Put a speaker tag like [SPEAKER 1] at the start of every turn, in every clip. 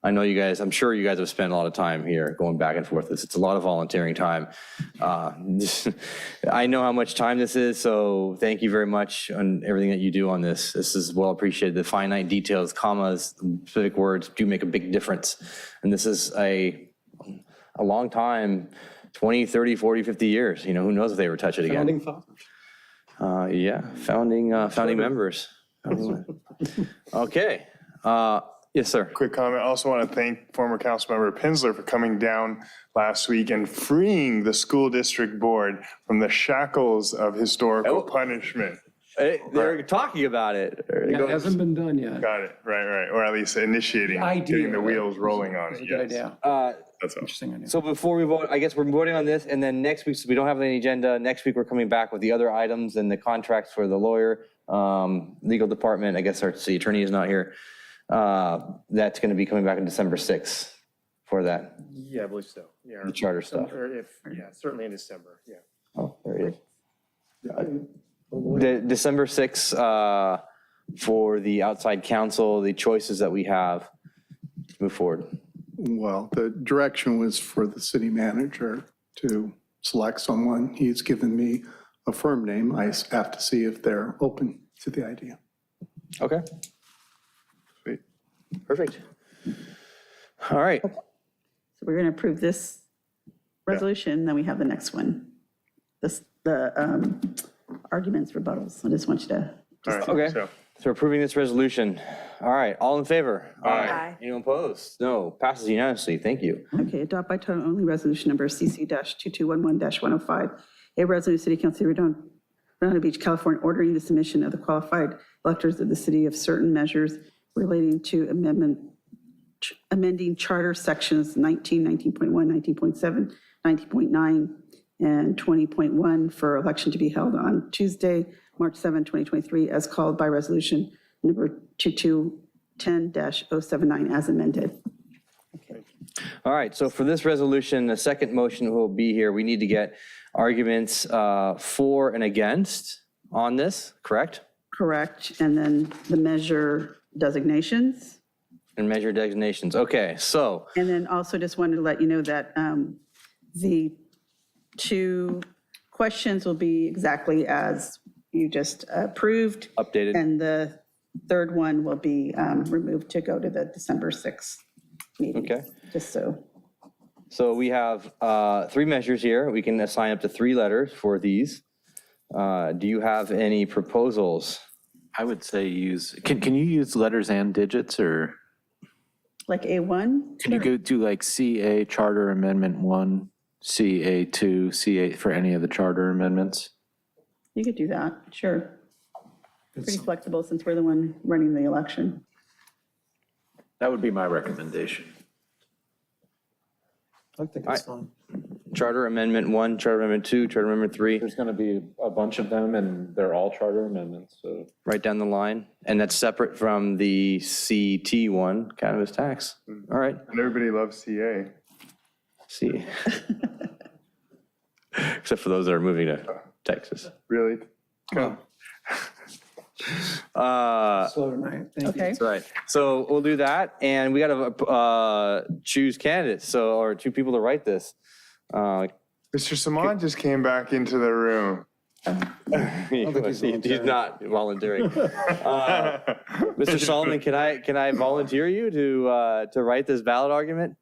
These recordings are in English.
[SPEAKER 1] I know you guys, I'm sure you guys have spent a lot of time here going back and forth. It's, it's a lot of volunteering time. Uh, I know how much time this is, so thank you very much on everything that you do on this. This is well appreciated. The finite details, commas, specific words do make a big difference. And this is a, a long time, 20, 30, 40, 50 years. You know, who knows if they ever touch it again.
[SPEAKER 2] Founding fathers.
[SPEAKER 1] Uh, yeah, founding, uh, founding members. Founding mem- Okay, uh, yes, sir.
[SPEAKER 3] Quick comment. I also want to thank former Councilmember Pinsler for coming down last week and freeing the school district board from the shackles of
[SPEAKER 2] Oh.
[SPEAKER 3] historical punishment.
[SPEAKER 1] Hey, Eh, They're talking about it.
[SPEAKER 2] It hasn't been done yet.
[SPEAKER 3] Got it. Right, right. Or at least initiating, getting the wheels rolling on
[SPEAKER 2] It's
[SPEAKER 3] it.
[SPEAKER 2] a good
[SPEAKER 3] Yes.
[SPEAKER 2] idea.
[SPEAKER 4] Uh,
[SPEAKER 3] That's all.
[SPEAKER 2] Interesting idea.
[SPEAKER 1] So before we vote, I guess we're voting on this, and then next week, so we don't have any agenda. Next week, we're coming back with the other items and the contracts for the lawyer, um, legal department. I guess our city attorney is not here. Uh, that's going to be coming back on December 6th for that,
[SPEAKER 5] Yeah, I believe so. Yeah,
[SPEAKER 1] the charter stuff.
[SPEAKER 5] or if, yeah, certainly in December, yeah.
[SPEAKER 1] Oh, there it is. De- December 6th, uh, for the outside council, the choices that we have to move forward.
[SPEAKER 4] Well, the direction was for the city manager to select someone. He's given me a firm name. I have to see if they're open to the idea.
[SPEAKER 1] Okay. Great. Perfect. All right.
[SPEAKER 6] So we're going to approve this resolution, then we have the next one. This, the um, arguments rebuttals. I just want you to,
[SPEAKER 3] All right,
[SPEAKER 1] Okay.
[SPEAKER 3] so-
[SPEAKER 1] So we're approving this resolution. All right, all in favor?
[SPEAKER 6] Aye.
[SPEAKER 1] Anyone opposed? No, passes unanimously. Thank you.
[SPEAKER 6] okay, adopt by title only resolution number CC-2211-105, a resolution of the City Council of Redondo Redondo Beach, California, ordering the submission of the qualified electors of the city of certain measures relating to amendment, amending charter sections 19, 19.1, 19.7, 19.9, and 20.1 for election to be held on Tuesday, March 7, 2023, as called by resolution number 2210-079 as amended.
[SPEAKER 1] All right, so for this resolution, the second motion will be here. We need to get arguments uh, for and against on this, correct?
[SPEAKER 6] Correct, and then the measure designations.
[SPEAKER 1] And measure designations. Okay, so
[SPEAKER 6] And then also just wanted to let you know that um, the two questions will be exactly as you just approved,
[SPEAKER 1] updated.
[SPEAKER 6] and the third one will be um, removed to go to the December 6th meeting.
[SPEAKER 1] Okay.
[SPEAKER 6] Just so,
[SPEAKER 1] So we have uh, three measures here. We can assign up to three letters for these. Uh, Do you have any proposals?
[SPEAKER 7] I would say use, can, can you use letters and digits or
[SPEAKER 6] like A1,
[SPEAKER 7] can you go do like CA Charter Amendment 1, CA 2, CA for any of the charter amendments?
[SPEAKER 6] you could do that, sure. Pretty flexible since we're the one running the election.
[SPEAKER 7] That would be my recommendation.
[SPEAKER 2] I think it's fine.
[SPEAKER 1] Charter Amendment 1, Charter Amendment 2, Charter Amendment 3,
[SPEAKER 7] There's going to be a bunch of them and they're all charter amendments, so.
[SPEAKER 1] right down the line. And that's separate from the CT one, cannabis tax. All right,
[SPEAKER 3] And everybody loves CA.
[SPEAKER 1] see. Except for those that are moving to Texas.
[SPEAKER 3] Really?
[SPEAKER 1] Uh,
[SPEAKER 2] Slow tonight. Thank you.
[SPEAKER 6] Okay.
[SPEAKER 1] That's right. So we'll do that, and we got to uh, choose candidates, so, or two people to write this. Uh,
[SPEAKER 3] Mr. Simon just came back into the room.
[SPEAKER 1] He's he's not volunteering. Uh, Mr. Solomon, can I, can I volunteer you to, uh, to write this ballot argument?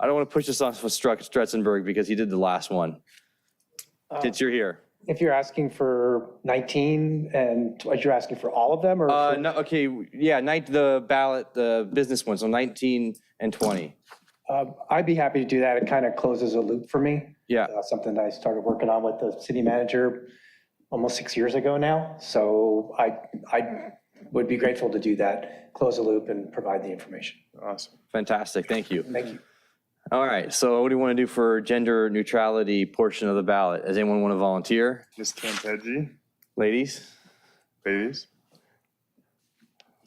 [SPEAKER 1] I don't want to push this off with Struck- Stretzenberg because he did the last one. Since you're here.
[SPEAKER 8] If you're asking for 19 and what you're asking for all of them or?
[SPEAKER 1] Uh,
[SPEAKER 8] for-
[SPEAKER 1] no, okay, yeah, night, the ballot, the business one, so 19 and 20.
[SPEAKER 8] Um, I'd be happy to do that. It kind of closes a loop for me.
[SPEAKER 1] Yeah,
[SPEAKER 8] Uh, Something that I started working on with the city manager almost six years ago now. So I, I would be grateful to do that, close a loop and provide the information.
[SPEAKER 3] Awesome.
[SPEAKER 1] fantastic, thank you.
[SPEAKER 8] Thank you.
[SPEAKER 1] All right, so what do you want to do for gender neutrality portion of the ballot? Does anyone want to volunteer?
[SPEAKER 3] Ms. Campeggio,
[SPEAKER 1] Ladies?
[SPEAKER 3] ladies,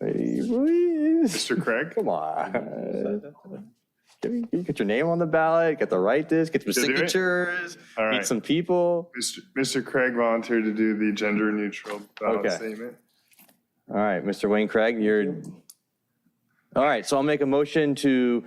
[SPEAKER 1] Ladies.
[SPEAKER 3] Mr. Craig.
[SPEAKER 1] Come on. Get- Get your name on the ballot, get the right this, get some
[SPEAKER 3] Should I do it?
[SPEAKER 1] signatures,
[SPEAKER 3] All
[SPEAKER 1] meet
[SPEAKER 3] right.
[SPEAKER 1] some people.
[SPEAKER 3] Mr. Mr. Craig volunteered to do the gender neutral ballot
[SPEAKER 1] Okay.
[SPEAKER 3] statement.
[SPEAKER 1] All right, Mr. Wayne Craig, you're, all right, so I'll make a motion to